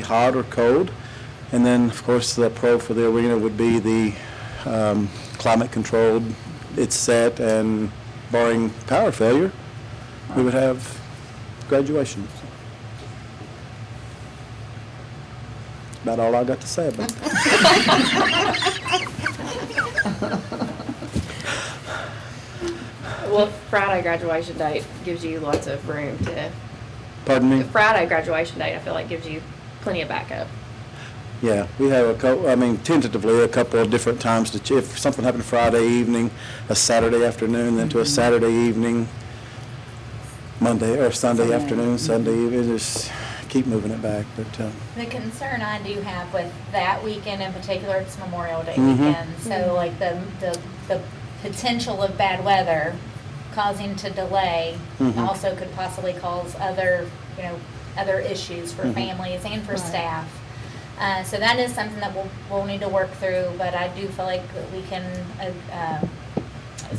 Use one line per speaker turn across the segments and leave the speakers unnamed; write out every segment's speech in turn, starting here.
hot or cold. And then, of course, the pro for the arena would be the um, climate controlled, it's set, and barring power failure, we would have graduation. About all I got to say about that.
Well, Friday graduation date gives you lots of room to,
Pardon me?
the Friday graduation date, I feel like gives you plenty of backup.
Yeah, we have a couple, I mean, tentatively, a couple of different times to, ch- if something happened Friday evening, a Saturday afternoon, then to a Saturday evening, Monday, or Sunday afternoon, Sunday evening, just keep moving it back, but, uh,
The concern I do have with that weekend in particular, it's Memorial Day
Mhm.
weekend, so like the, the, the potential of bad weather causing to delay
Mhm.
also could possibly cause other, you know, other issues for
Mhm.
families and for staff. Uh, so that is something that we'll, we'll need to work through, but I do feel like that we can, uh, uh,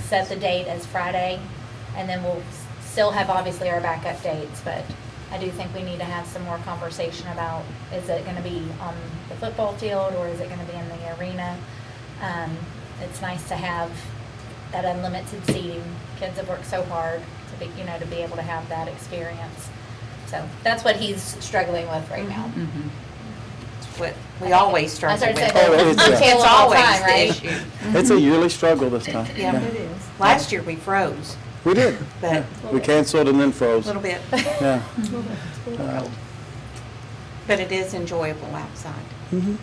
set the date as Friday, and then we'll s- still have obviously our backup dates, but I do think we need to have some more conversation about, is it gonna be on the football field, or is it gonna be in the arena? Um, it's nice to have that unlimited seating, kids have worked so hard to be, you know, to be able to have that experience. So, that's what he's struggling with right now.
What we always
I
struggle
started
with.
saying
Oh, it
that
is, yeah.
until
It's
all the
always
time,
the
right?
issue.
it's a yearly struggle this time.
Yeah.
It is.
Last year, we froze
We did.
But-
Yeah. We canceled and then
a
froze.
little bit,
Yeah.
but it is enjoyable outside.
Mhm.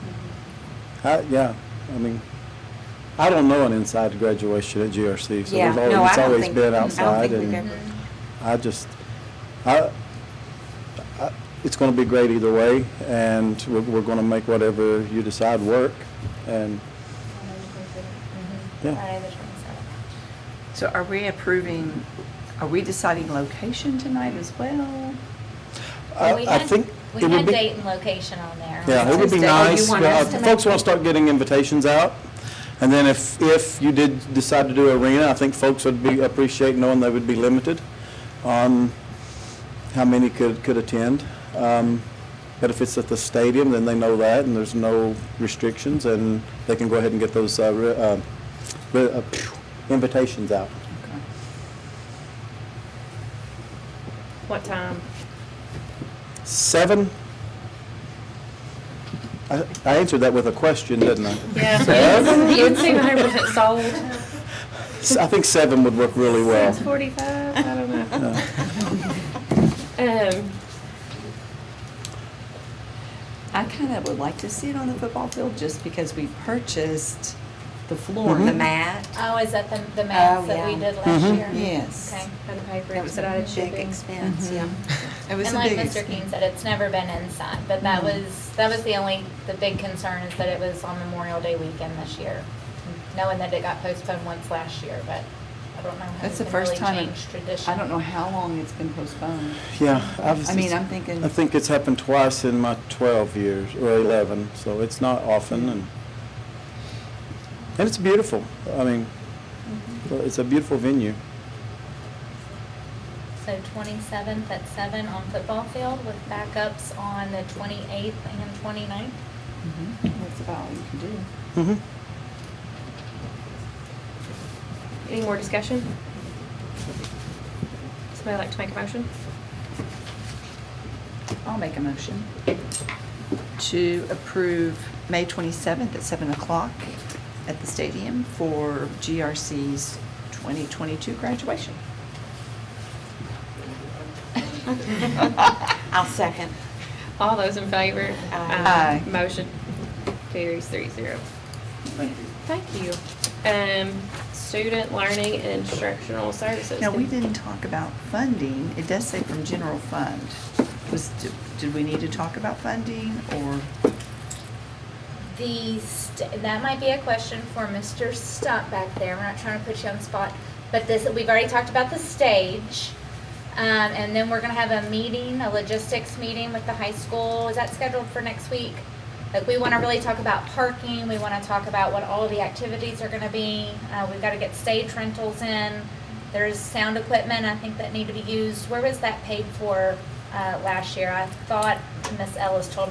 I, yeah, I mean, I don't know an inside graduation at GRC, so
Yeah,
we've
no,
always,
I
it's
don't
always
think-
been
I don't
outside
think we've
and.
ever-
Mm-hmm.
I just, I, I, it's gonna be great either way, and we're, we're gonna make whatever you decide work, and,
Mhm.
Yeah.
Friday the 27th.
So are we approving, are we deciding location tonight as well?
I,
Well, we
I
had-
think.
We
it would
had
be-
date and location on there.
Yeah, it would be
Tuesday. Oh, you
nice,
want
yeah, if
us to
folks
make-
wanna start getting invitations out, and then if, if you did decide to do arena, I think folks would be, appreciate knowing they would be limited on how many could, could attend. Um, But if it's at the stadium, then they know that, and there's no restrictions, and they can go ahead and get those uh, re- uh, re- uh, phew, invitations out.
What time?
Seven? I I answered that with a question, didn't I? Seven?
You seem hundred percent sold.
I think seven would work really well.
Six forty-five, I don't know.
Uh,
Um,
I kind of would like to see it on the football field just because we purchased the floor.
Or the
Mm-hmm.
mat,
Oh, is that the, the math
Oh,
that we
yeah.
did last
Mhm.
year?
Yes.
Okay.
and the paper,
that
it
was
said I
a
had
big
shipping.
expense, yeah.
Mm-hmm.
It was
And
a
like
big
Mr. King said, it's never been inside, but that
Mm-hmm.
was, that was the only, the big concern is that it was on Memorial Day weekend this year. Knowing that it got postponed once last year, but I don't know how we
That's the
can
first
really
time, in-
change tradition.
I don't know how long it's been postponed.
Yeah. I've-
I mean, I'm thinking-
I think it's happened twice in my 12 years, or 11, so it's not often, and, and it's beautiful. I mean,
Mm-hmm.
it's a beautiful venue.
So twenty-seventh at seven on football field with backups on the twenty-eighth and 29th.
Mm-hmm. That's about all you can do.
Mm-hmm.
Any more discussion? Somebody like to make a motion?
I'll make a motion to approve May 27th at 7 o'clock at the stadium for GRC's 2022 graduation.
I'll second.
All those in favor? Um,
Aye.
Aye.
Motion carries three zero. Thank you. Um, student learning and instructional services.
Now, we didn't talk about funding. It does say from general fund. Was, did- did we need to talk about funding or?
The, st- that might be a question for Mr. Stump back there, we're not trying to put you on the spot, but this, we've already talked about the stage. Um, and then we're gonna have a meeting, a logistics meeting with the high school, is that scheduled for next week? Like, we wanna really talk about parking, we wanna talk about what all the activities are gonna be, uh, we've gotta get stage rentals in. There's sound equipment, I think that need to be used, where was that paid for, uh, last year? I thought Miss Ellis told